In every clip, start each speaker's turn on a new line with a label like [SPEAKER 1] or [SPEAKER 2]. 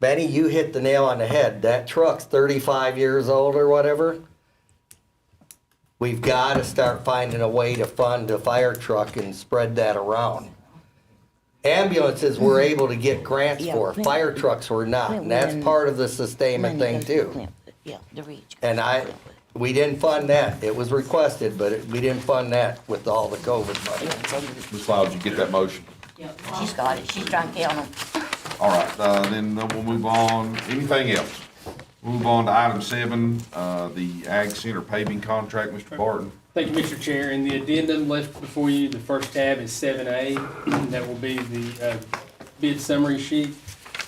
[SPEAKER 1] Benny, you hit the nail on the head. That truck's 35 years old or whatever. We've got to start finding a way to fund a fire truck and spread that around. Ambulances we're able to get grants
[SPEAKER 2] Yeah,
[SPEAKER 1] for,
[SPEAKER 2] when-
[SPEAKER 1] fire trucks we're not, and that's
[SPEAKER 2] when-
[SPEAKER 1] part of the sustainment thing too.
[SPEAKER 2] Yeah, the reach.
[SPEAKER 1] And I, we didn't fund that. It was requested, but it- we didn't fund that with all the COVID money.
[SPEAKER 3] Ms. Lyles, you get that motion?
[SPEAKER 2] She's got it, she's drunk down on
[SPEAKER 3] All right, uh, then we'll move on, anything else? Move on to item seven, uh, the Ag Center paving contract, Mr. Barton.
[SPEAKER 4] Thank you, Mr. Chair. In the addendum left before you, the first tab is seven A. That will be the uh, bid summary sheet.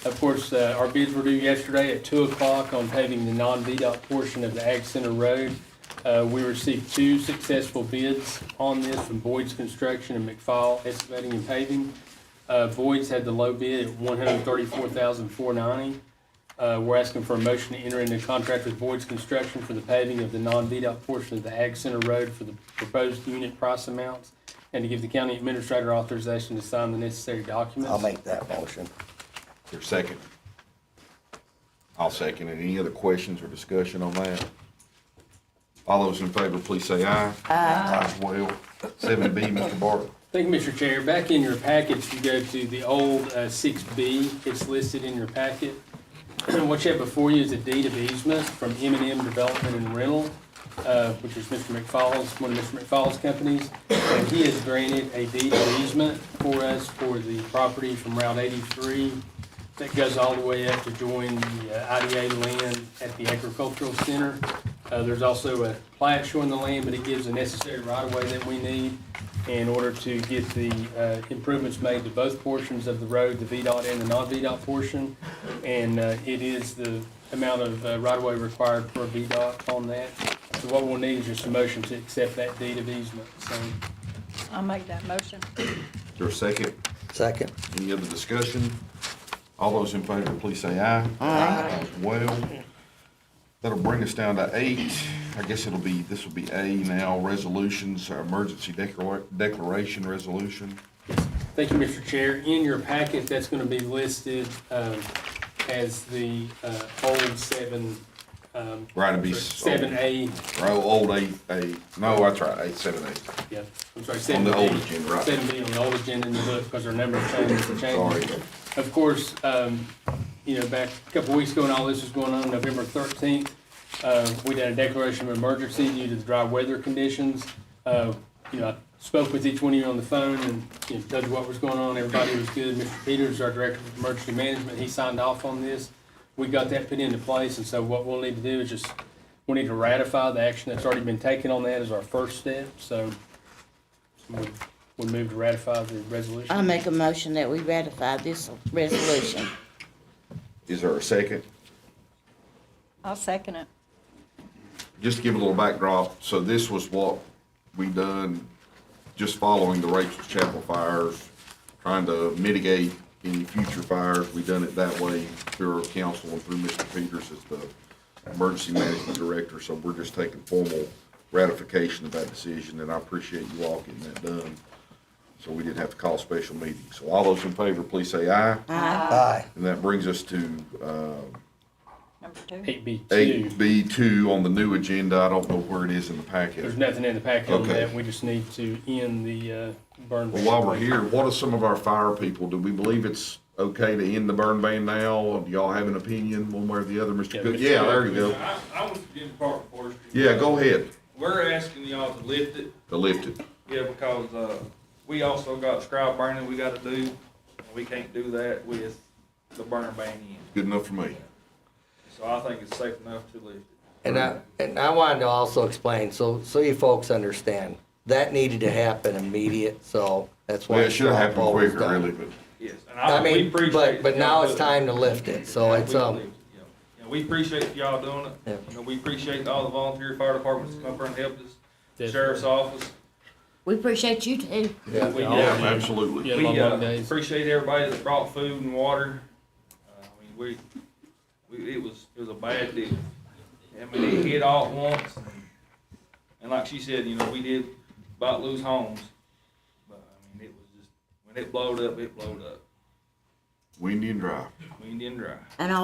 [SPEAKER 4] Of course, uh, our bids were due yesterday at two o'clock on paving the non-VDOT portion of the Ag Center Road. Uh, We received two successful bids on this from Boyd's Construction and McFall Excavating and Paving. Uh, Boyd's had the low bid at one hundred thirty-four thousand four ninety. Uh, we're asking for a motion to enter into contract with Boyd's Construction for the paving of the non-VDOT portion of the Ag Center Road for the proposed unit price amounts, and to give the county administrator authorization to sign the necessary documents.
[SPEAKER 1] I'll make that motion.
[SPEAKER 3] Your second. I'll second it. Any other questions or discussion on that? All those in favor, please say aye. Aye. As well. Seven B, Mr. Barton.
[SPEAKER 4] Thank you, Mr. Chair. Back in your packets, you go to the old uh, six B. It's listed in your packet. What you have before you is a deed of easement from M and M Development and Rental, uh, which is Mr. McFall's, one of Mr. McFall's companies. And he has granted a deed of easement for us for the property from Route eighty-three that goes all the way up to join the uh, IDA land at the agricultural center. Uh, There's also a plat showing the land, but it gives the necessary right-of-way that we need in order to get the uh, improvements made to both portions of the road, the VDOT and the non-VDOT portion. And uh, it is the amount of uh, right-of-way required for VDOT on that. So what we'll need is just a motion to accept that deed of easement. So
[SPEAKER 5] I'll make that motion.
[SPEAKER 3] Is there a second?
[SPEAKER 1] Second.
[SPEAKER 3] Any other discussion? All those in favor, please say aye. Aye. Well, that'll bring us down to eight. I guess it'll be, this will be A now, resolutions, uh, emergency declara- declaration resolution.
[SPEAKER 4] Thank you, Mr. Chair. In your packet, that's going to be listed um, as the uh, old seven. um,
[SPEAKER 3] Right, it'd be s-
[SPEAKER 4] Seven A,
[SPEAKER 3] Oh, old eight, eight, no, that's right, eight, seven, eight.
[SPEAKER 4] yeah, I'm sorry,
[SPEAKER 3] On
[SPEAKER 4] seven
[SPEAKER 3] the
[SPEAKER 4] B.
[SPEAKER 3] old agenda, right.
[SPEAKER 4] Seven B on the old agenda in the book because our number of changes are
[SPEAKER 3] Sorry.
[SPEAKER 4] changing. Of course, um, you know, back a couple weeks ago when all this was going on, November thirteenth, uh, we did a declaration of emergency due to the dry weather conditions. Uh, you know, I spoke with each one of you on the phone and, you know, told you what was going on. Everybody was good. Mr. Peters, our Director of Emergency Management, he signed off on this. We got that put into place, and so what we'll need to do is just, we need to ratify the action that's already been taken on that as our first step, so we, we move to ratify the resolution.
[SPEAKER 2] I make a motion that we ratify this resolution.
[SPEAKER 3] Is there a second?
[SPEAKER 5] I'll second it.
[SPEAKER 3] Just to give a little backdrop, so this was what we done just following the Rachel's Chapel fires, trying to mitigate any future fires. We done it that way through our council and through Mr. Peters as the emergency management director. So we're just taking formal ratification of that decision, and I appreciate you all getting that done. So we didn't have to call a special meeting. So all those in favor, please say aye.
[SPEAKER 1] Aye.
[SPEAKER 3] And that brings us to, uh,
[SPEAKER 5] Number two.
[SPEAKER 4] Eight B two.
[SPEAKER 3] eight B two on the new agenda. I don't know where it is in the
[SPEAKER 4] There's
[SPEAKER 3] packet.
[SPEAKER 4] nothing in the packet on
[SPEAKER 3] Okay.
[SPEAKER 4] that, we just need to end the uh, burn.
[SPEAKER 3] Well, while we're here, what are some of our fire people? Do we believe it's okay to end the burn ban now? Do y'all have an opinion one way or the other, Mr.
[SPEAKER 4] Yeah,
[SPEAKER 3] Cook?
[SPEAKER 4] Mr.
[SPEAKER 3] Yeah, there you go.
[SPEAKER 6] I, I want to give the Park Forestry.
[SPEAKER 3] Yeah, go ahead.
[SPEAKER 6] We're asking y'all to lift it,
[SPEAKER 3] To lift it.
[SPEAKER 6] yeah, because, uh, we also got scrap burning we gotta do. and We can't do that with the burner ban in.
[SPEAKER 3] Good enough for me.
[SPEAKER 6] So I think it's safe enough to lift it.
[SPEAKER 1] And I, and I wanted to also explain, so, so you folks understand, that needed to happen immediate, so that's why.
[SPEAKER 3] Well, it should have happened
[SPEAKER 1] Paul was
[SPEAKER 3] quicker,
[SPEAKER 1] done.
[SPEAKER 3] really, but
[SPEAKER 6] Yes, and
[SPEAKER 1] I
[SPEAKER 6] I, Uh, we
[SPEAKER 1] mean,
[SPEAKER 6] appreciate.
[SPEAKER 1] but, but
[SPEAKER 6] y'all
[SPEAKER 1] now it's
[SPEAKER 6] doing it.
[SPEAKER 1] time to lift it, so
[SPEAKER 6] Yeah,
[SPEAKER 1] it's,
[SPEAKER 6] we
[SPEAKER 1] um,
[SPEAKER 6] believe, yeah. Yeah, we appreciate y'all doing
[SPEAKER 1] Yeah.
[SPEAKER 6] it. You know, we appreciate all the volunteer fire departments that come up and helped us, the sheriff's office.
[SPEAKER 2] We appreciate you too.
[SPEAKER 1] yeah,
[SPEAKER 6] We,
[SPEAKER 3] yeah,
[SPEAKER 6] uh,
[SPEAKER 3] absolutely.
[SPEAKER 4] Yeah,
[SPEAKER 6] We
[SPEAKER 4] long,
[SPEAKER 6] uh,
[SPEAKER 4] long days.
[SPEAKER 6] appreciate everybody that brought food and water. Uh, I mean, we, we, it was, it was a bad deal. I mean, it hit all at once. And like she said, you know, we did about lose homes. But I mean, it was just, when it blowed up, it blowed up.
[SPEAKER 3] Windy and dry.
[SPEAKER 6] We didn't dry.
[SPEAKER 2] And I